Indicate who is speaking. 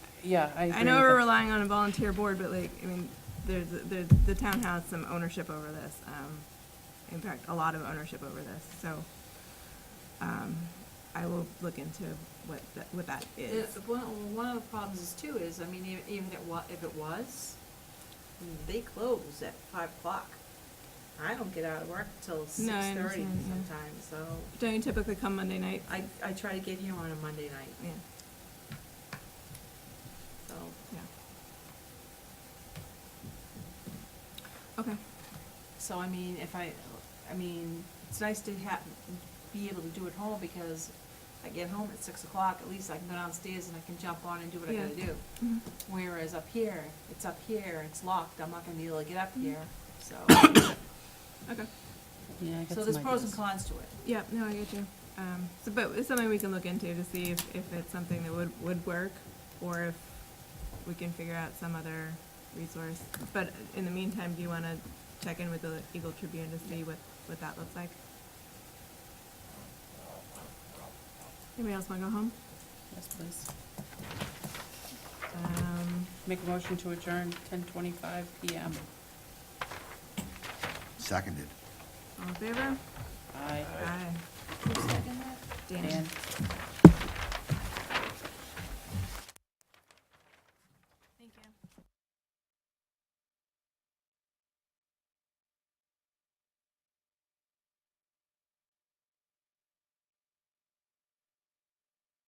Speaker 1: yeah, I agree.
Speaker 2: I know
Speaker 1: with
Speaker 2: we're
Speaker 1: that.
Speaker 2: relying on a volunteer board, but like, I mean, there's, there's, the town has some ownership over this. um, In fact, a lot of ownership over this, so, um, I will look into what, that- what that
Speaker 3: It-
Speaker 2: is.
Speaker 3: One, one of the problems is too is, I mean, e- even it wa, if it was, they close at five o'clock. I don't get out of work till six
Speaker 2: No, I
Speaker 3: thirty
Speaker 2: understand, yeah.
Speaker 3: sometimes, so
Speaker 2: Don't you typically come Monday night?
Speaker 3: I, I try to get here on a Monday night,
Speaker 2: Yeah,
Speaker 3: so.
Speaker 2: yeah. Okay,
Speaker 3: So I mean, if I, I mean, it's nice to have, be able to do it home because I get home at six o'clock, at least I can go downstairs and I can jump on and do what I
Speaker 2: Yeah.
Speaker 3: gotta do.
Speaker 2: Mhm.
Speaker 3: Whereas up here, it's up here, it's locked, I'm not gonna be able to get up here, so,
Speaker 2: okay.
Speaker 1: Yeah, I got
Speaker 3: so there's
Speaker 1: some
Speaker 3: pros
Speaker 1: ideas.
Speaker 3: and cons to it.
Speaker 2: Yeah, no, I get you. Um, so, but it's something we can look into to see if, if it's something that would, would work, or if we can figure out some other resource. But in the meantime, do you wanna check in with the Eagle Tribune to see what, what that looks like? Anybody else wanna go home?
Speaker 1: Yes, please.
Speaker 2: Um,
Speaker 1: Make a motion to adjourn ten twenty-five PM.
Speaker 4: Seconded.
Speaker 2: all in favor?
Speaker 1: Aye.
Speaker 2: Aye.
Speaker 3: Who's second that?
Speaker 2: Dan?
Speaker 1: Dan?